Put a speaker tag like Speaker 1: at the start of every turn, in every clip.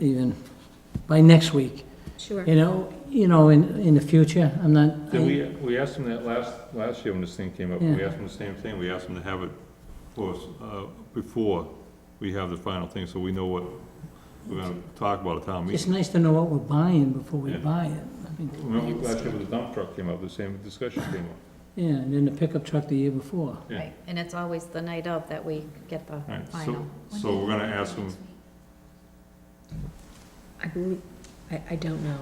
Speaker 1: even by next week,
Speaker 2: Sure.
Speaker 1: you know, you know, in, in the future, I'm not.
Speaker 3: Yeah, we, we asked them that last, last year when this thing came up, we
Speaker 1: Yeah.
Speaker 3: asked them the same thing, we asked them to have it for us, uh, before we have the final thing, so we know what we're gonna talk about at town
Speaker 1: It's
Speaker 3: meeting.
Speaker 1: nice to know what we're buying before we
Speaker 3: Yeah.
Speaker 1: buy it. I mean,
Speaker 3: Remember last year when the dump truck came up, the same discussion came up.
Speaker 1: Yeah, and then the pickup truck the year before.
Speaker 3: Yeah.
Speaker 2: Right, and it's always the night of that we get the
Speaker 3: Right, so,
Speaker 2: final.
Speaker 3: so we're gonna ask them,
Speaker 4: I believe, I, I don't know,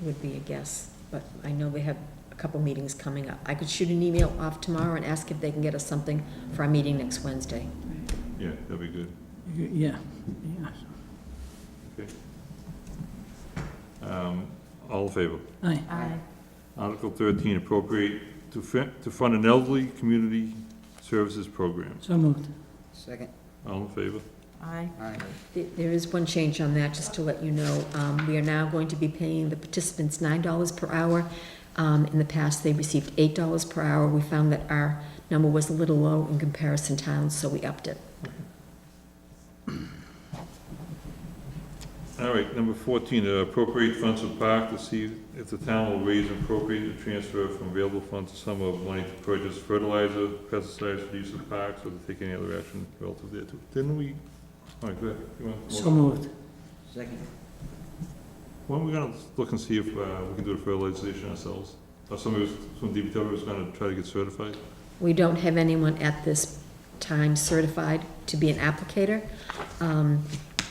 Speaker 4: It would be a guess, but I know they have a couple meetings coming up. I could shoot an email off tomorrow and ask if they can get us something for our meeting next Wednesday.
Speaker 3: yeah, that'd be good.
Speaker 1: Yeah, yeah.
Speaker 3: Um, all in favor?
Speaker 1: Aye.
Speaker 2: Aye.
Speaker 3: Article thirteen, appropriate to fin, to fund an elderly community services program.
Speaker 1: So moved.
Speaker 5: Second,
Speaker 3: All in favor?
Speaker 2: Aye.
Speaker 5: aye.
Speaker 4: There- There is one change on that, just to let you know. Um, We are now going to be paying the participants nine dollars per hour. Um, In the past, they received eight dollars per hour. We found that our number was a little low in comparison towns, so we upped it.
Speaker 3: All right, number fourteen, uh, appropriate funds for park to see if the town will raise and appropriate to transfer from available funds a sum of money to purchase fertilizer, pesticides for use of parks, or to take any other action relative thereto. Didn't we, all right, go ahead. You want-
Speaker 1: So moved.
Speaker 5: Second,
Speaker 3: When are we gonna look and see if, uh, we can do the fertilization ourselves? Or somebody was, from DPW was gonna try to get certified?
Speaker 4: We don't have anyone at this time certified to be an applicator. Um,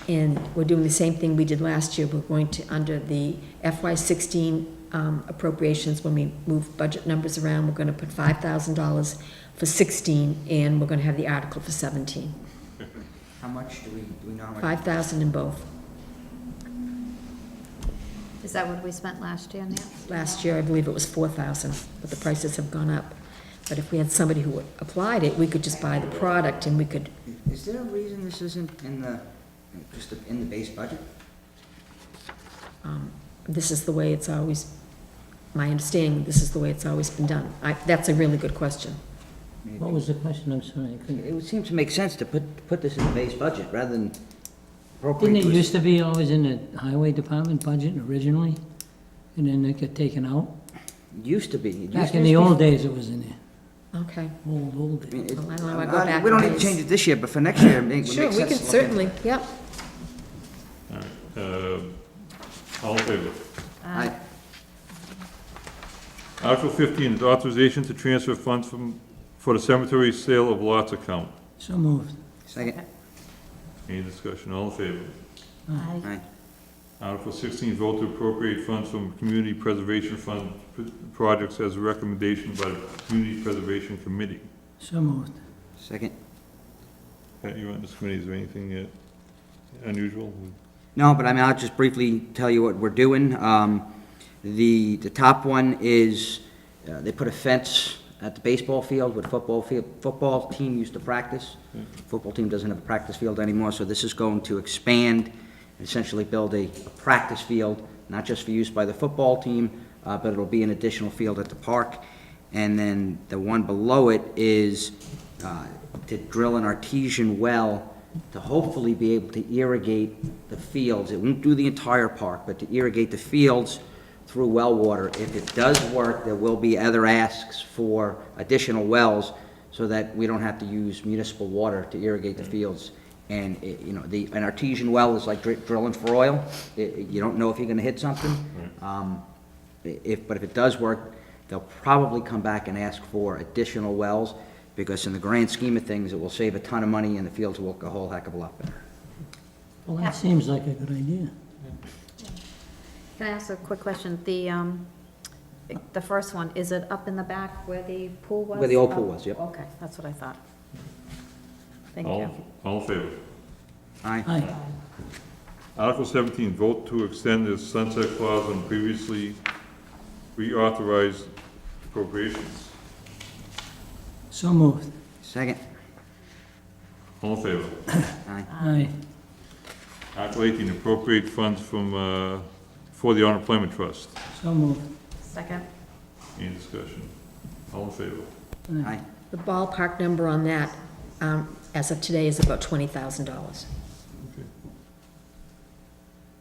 Speaker 4: And we're doing the same thing we did last year. We're going to, under the FY sixteen um, appropriations, when we move budget numbers around, we're gonna put five thousand dollars for sixteen, and we're gonna have the article for seventeen.
Speaker 5: how much do we, do we know how much?
Speaker 4: Five thousand in both.
Speaker 2: Is that what we spent last year, Nancy?
Speaker 4: Last year, I believe it was four thousand, but the prices have gone up. But if we had somebody who applied it, we could just buy the product and we could,
Speaker 5: Is there a reason this isn't in the, just in the base budget?
Speaker 4: um, this is the way it's always, my understanding, this is the way it's always been done. I, that's a really good question.
Speaker 5: I mean,
Speaker 1: What was the question? I'm sorry. I couldn't-
Speaker 5: It would seem to make sense to put, put this in the base budget rather than appropriate.
Speaker 1: Didn't it
Speaker 5: to a-
Speaker 1: used to be always in the highway department budget originally? And then it got taken out?
Speaker 5: Used to be. it used
Speaker 1: Back
Speaker 5: to
Speaker 1: in
Speaker 5: be-
Speaker 1: the old days it was in there.
Speaker 4: Okay,
Speaker 1: Old, old
Speaker 5: I mean,
Speaker 1: days.
Speaker 5: it-
Speaker 4: Well, I don't know, I go
Speaker 5: uh,
Speaker 4: back
Speaker 5: We don't
Speaker 4: a
Speaker 5: need to
Speaker 4: ways.
Speaker 5: change it this year, but for next year, it makes
Speaker 4: sure,
Speaker 5: sense.
Speaker 4: we can
Speaker 5: to look into
Speaker 4: certainly,
Speaker 5: it.
Speaker 4: yep.
Speaker 3: All right, uh, all in favor?
Speaker 5: Aye,
Speaker 3: Article fifteen, is authorization to transfer funds from, for the cemetery sale of lots account.
Speaker 1: So moved.
Speaker 5: second,
Speaker 3: Any discussion, all in favor?
Speaker 4: Uh,
Speaker 2: Aye.
Speaker 5: aye,
Speaker 3: Article sixteen, vote to appropriate funds from Community Preservation Fund p- projects as a recommendation by the Community Preservation Committee.
Speaker 1: So moved.
Speaker 5: second.
Speaker 3: Pat, you on this committee, is there anything uh, unusual?
Speaker 5: No, but I mean, I'll just briefly tell you what we're doing. Um, The, the top one is, uh, they put a fence at the baseball field where the football field, football team used to practice. Football team doesn't have a practice field anymore, so this is going to expand, essentially build a a practice field, not just for use by the football team, uh, but it'll be an additional field at the park. And then the one below it is uh, to drill an artesian well to hopefully be able to irrigate the fields. It won't do the entire park, but to irrigate the fields through well water. If it does work, there will be other asks for additional wells so that we don't have to use municipal water to irrigate the fields. And, it- you know, the, an artesian well is like dri- drilling for oil. It- it- You don't know if you're gonna hit something. Um, i- If, but if it does work, they'll probably come back and ask for additional wells, because in the grand scheme of things, it will save a ton of money, and the fields will look a whole heck of a lot better.
Speaker 1: Well, that seems like a good idea.
Speaker 2: Can I ask a quick question? The, um, the first one, is it up in the back where the pool was?
Speaker 5: Where the old pool
Speaker 2: Up-
Speaker 5: was, yep.
Speaker 2: Okay, that's what I thought. Thank
Speaker 3: All,
Speaker 2: you.
Speaker 3: all in favor?
Speaker 5: Aye,
Speaker 1: Aye.
Speaker 3: Article seventeen, vote to extend the sunset clause on previously reauthorized appropriations.
Speaker 1: So moved.
Speaker 5: second,
Speaker 3: All in favor?
Speaker 5: aye,
Speaker 1: Aye.
Speaker 3: Article eighteen, appropriate funds from, uh, for the unemployment trust.
Speaker 1: So moved.
Speaker 2: Second?
Speaker 3: Any discussion? All in favor?
Speaker 5: aye,
Speaker 4: The ballpark number on that, um, as of today, is about twenty thousand dollars.